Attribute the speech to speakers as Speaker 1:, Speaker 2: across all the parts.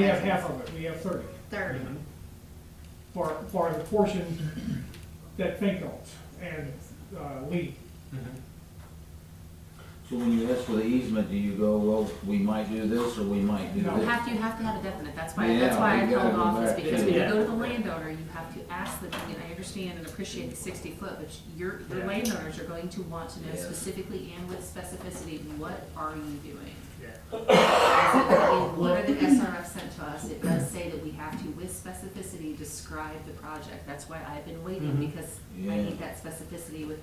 Speaker 1: We have half of it, we have thirty,
Speaker 2: thirty.
Speaker 3: Mm-hmm.
Speaker 1: for, for the portion that Fink owns and uh, Lee.
Speaker 3: So when you ask for the easement, do you go, well, we might do this or we might do
Speaker 1: No.
Speaker 3: this?
Speaker 2: Have, you have to have a definite, that's why,
Speaker 3: Yeah,
Speaker 2: that's why I
Speaker 3: we gotta
Speaker 2: held
Speaker 3: go
Speaker 2: off, is
Speaker 3: back
Speaker 2: because
Speaker 3: to-
Speaker 2: when you
Speaker 4: Yeah.
Speaker 2: go to the landowner, you have to ask them, and I understand and appreciate the sixty foot, but your, your
Speaker 4: Yeah.
Speaker 2: landowners are going to want to know
Speaker 3: Yes.
Speaker 2: specifically and with specificity, what are you doing?
Speaker 4: Yeah.
Speaker 2: In what the SRF sent to us, it does say that we have to, with specificity, describe the project, that's why I've been waiting,
Speaker 4: Mhm.
Speaker 2: because
Speaker 3: Yeah.
Speaker 2: I need that specificity with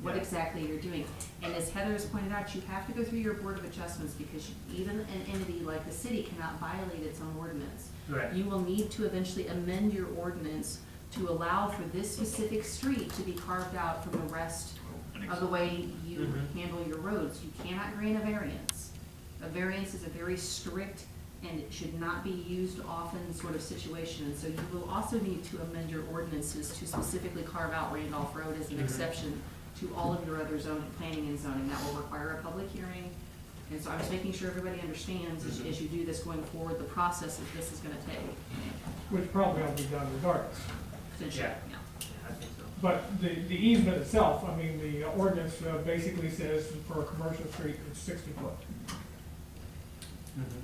Speaker 2: what
Speaker 4: Yeah.
Speaker 2: exactly you're doing. And as Heather has pointed out, you have to go through your board of adjustments, because you- even an entity like the city cannot violate its own ordinance.
Speaker 4: Right.
Speaker 2: You will need to eventually amend your ordinance to allow for this specific street to be carved out from the rest of the way you
Speaker 4: Mhm.
Speaker 2: handle your roads. You cannot grant a variance. A variance is a very strict and it should not be used often sort of situation. And so you will also need to amend your ordinances to specifically carve out Randolph Road as an
Speaker 4: Mhm.
Speaker 2: exception to all of your other zoning, planning and zoning. That will require a public hearing. And so I'm just making sure everybody understands as- as you do this going forward, the process that this is gonna take.
Speaker 1: Which probably ought to be done regardless.
Speaker 2: Essentially,
Speaker 4: Yeah.
Speaker 2: yeah.
Speaker 4: Yeah, I think so.
Speaker 1: But the, the easement itself, I mean, the ordinance uh, basically says for a commercial street, it's sixty foot.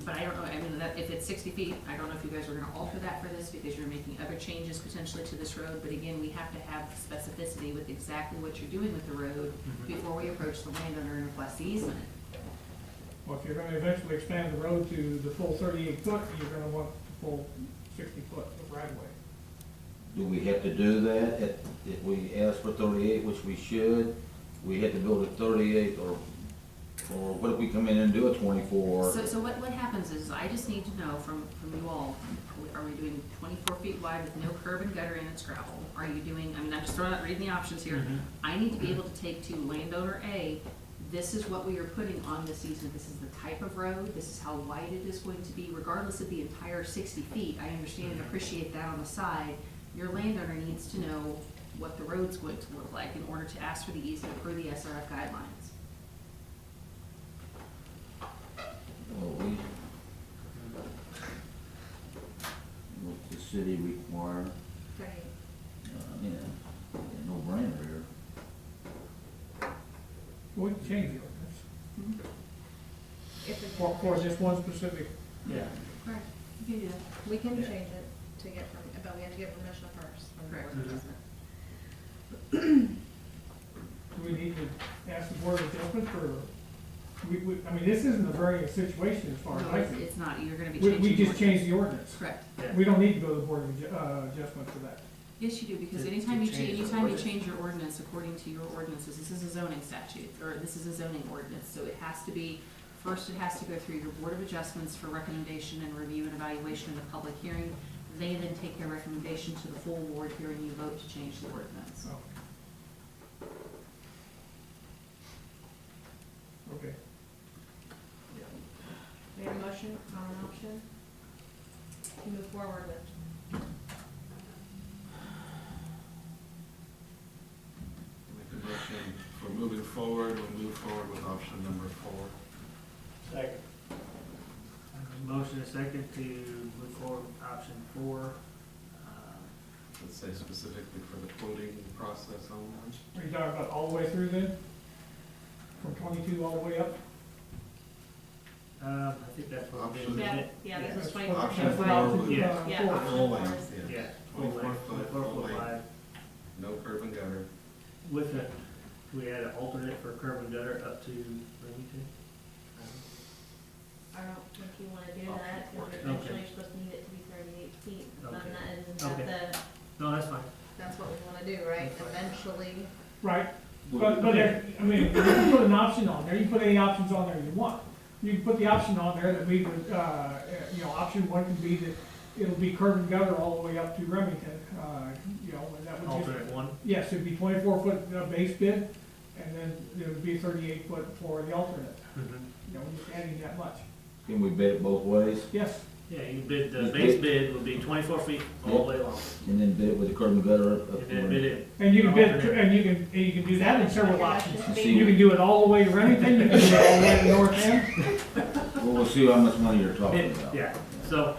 Speaker 2: But I don't know, I mean, that, if it's sixty feet, I don't know if you guys are gonna alter that for this, because you're making other changes potentially to this road, but again, we have to have specificity with exactly what you're doing with the road
Speaker 4: Mhm.
Speaker 2: before we approach the landowner and request the easement.
Speaker 1: Well, if you're gonna eventually expand the road to the full thirty-eight foot, you're gonna want the full sixty foot of right of way.
Speaker 3: Do we have to do that? If, if we ask for thirty-eight, which we should, we have to build a thirty-eight or, or what if we come in and do a twenty-four?
Speaker 2: So, so what, what happens is, I just need to know from, from you all, are we- are we doing twenty-four feet wide with no curb and gutter and it's gravel? Are you doing, I mean, I'm just throwing out, reading the options here.
Speaker 4: Mhm.
Speaker 2: I need to be able to take to landowner A, this is what we are putting on this easement, this is the type of road, this is how wide it is going to be, regardless of the entire sixty feet, I understand and appreciate that on the side. Your landowner needs to know what the road's going to look like in order to ask for the easement per the SRF guidelines.
Speaker 3: Well, we- What the city require,
Speaker 2: Right.
Speaker 3: uh, you know, no brainer here.
Speaker 1: We can change the ordinance
Speaker 2: Mhm.
Speaker 1: for, for this one specific,
Speaker 4: Yeah.
Speaker 2: Right, you can do that.
Speaker 5: We can
Speaker 4: Yeah.
Speaker 5: change it to get, perm- but we have to get permission first. from the board.
Speaker 2: Correct.
Speaker 4: Mhm.
Speaker 1: do we need to ask the board of adjustment for, we, we, I mean, this isn't a variant situation as far as
Speaker 2: No,
Speaker 1: I
Speaker 2: it's,
Speaker 1: see.
Speaker 2: it's not, you're gonna be
Speaker 1: We,
Speaker 2: changing.
Speaker 1: we just
Speaker 2: ordinance.
Speaker 1: changed the ordinance.
Speaker 2: Correct.
Speaker 4: Yeah.
Speaker 1: We don't need to go to the board of adju- uh, adjustment for that.
Speaker 2: Yes, you do, because
Speaker 4: To-
Speaker 2: anytime
Speaker 4: to
Speaker 2: you change,
Speaker 4: change the
Speaker 2: anytime you
Speaker 4: ordinance.
Speaker 2: change your ordinance according to your ordinances, this is a zoning statute, or this is a zoning ordinance, so it has to be, first it has to go through your board of adjustments for recommendation and review and evaluation in the public hearing. They then take their recommendation to the full board here and you vote to change the ordinance.
Speaker 1: So. Okay,
Speaker 5: We have a motion on an option to move forward with.
Speaker 6: Make a motion for moving forward, we'll move forward with option number four.
Speaker 4: Second. Motion is second to move forward with option four. Uh,
Speaker 6: Let's say specifically for the quoting process only.
Speaker 1: are you talking about all the way through then? From twenty-two all the way up?
Speaker 4: Um, I think that's what we did.
Speaker 6: Option-
Speaker 4: wasn't it?
Speaker 5: Yeah,
Speaker 1: That's
Speaker 5: this is
Speaker 1: what-
Speaker 5: twenty-four.
Speaker 6: Option
Speaker 1: that's what
Speaker 6: four
Speaker 1: option,
Speaker 4: would-
Speaker 1: uh,
Speaker 5: Yeah.
Speaker 1: four.
Speaker 5: Yeah.
Speaker 6: Full length, yeah.
Speaker 4: Yeah. Full
Speaker 6: Twenty-four
Speaker 4: length,
Speaker 6: foot,
Speaker 4: twenty-four
Speaker 6: full
Speaker 4: foot
Speaker 6: length,
Speaker 4: wide
Speaker 6: no curb and gutter.
Speaker 4: with a, we had an alternate for curb and gutter up to Remington.
Speaker 5: I don't think you wanna do
Speaker 6: Option
Speaker 5: that,
Speaker 6: four.
Speaker 5: because eventually you're supposed to need it to be thirty-eight feet. And
Speaker 4: Okay.
Speaker 5: that is, not
Speaker 4: Okay.
Speaker 5: the,
Speaker 4: No, that's fine.
Speaker 5: that's what we wanna do, right?
Speaker 4: That's fine.
Speaker 5: Eventually,
Speaker 1: Right, but, but there, I mean, you can put an option on there, you can put any options on there you want. You can put the option on there that we would, uh, you know, option one can be that it'll be curb and gutter all the way up to Remington, uh, you know, and that would just
Speaker 4: Alternate one.
Speaker 1: Yes, it'd be twenty-four foot uh, base bid, and then it would be thirty-eight foot for the alternate,
Speaker 4: Mhm.
Speaker 1: you know, just adding that much.
Speaker 3: Can we bid it both ways
Speaker 1: Yes,
Speaker 4: Yeah, you bid, the base bid would be twenty-four feet all the way long.
Speaker 3: and then bid it with the curb and gutter up? up
Speaker 4: And then
Speaker 3: to-
Speaker 4: bid it.
Speaker 1: and you can bid, and you can, and you can do that in several options.
Speaker 5: should
Speaker 3: See,
Speaker 1: You can do it all the way to Remington, you can do it all the way to North End,
Speaker 3: Well, we'll see how much money you're talking about.
Speaker 4: Yeah, so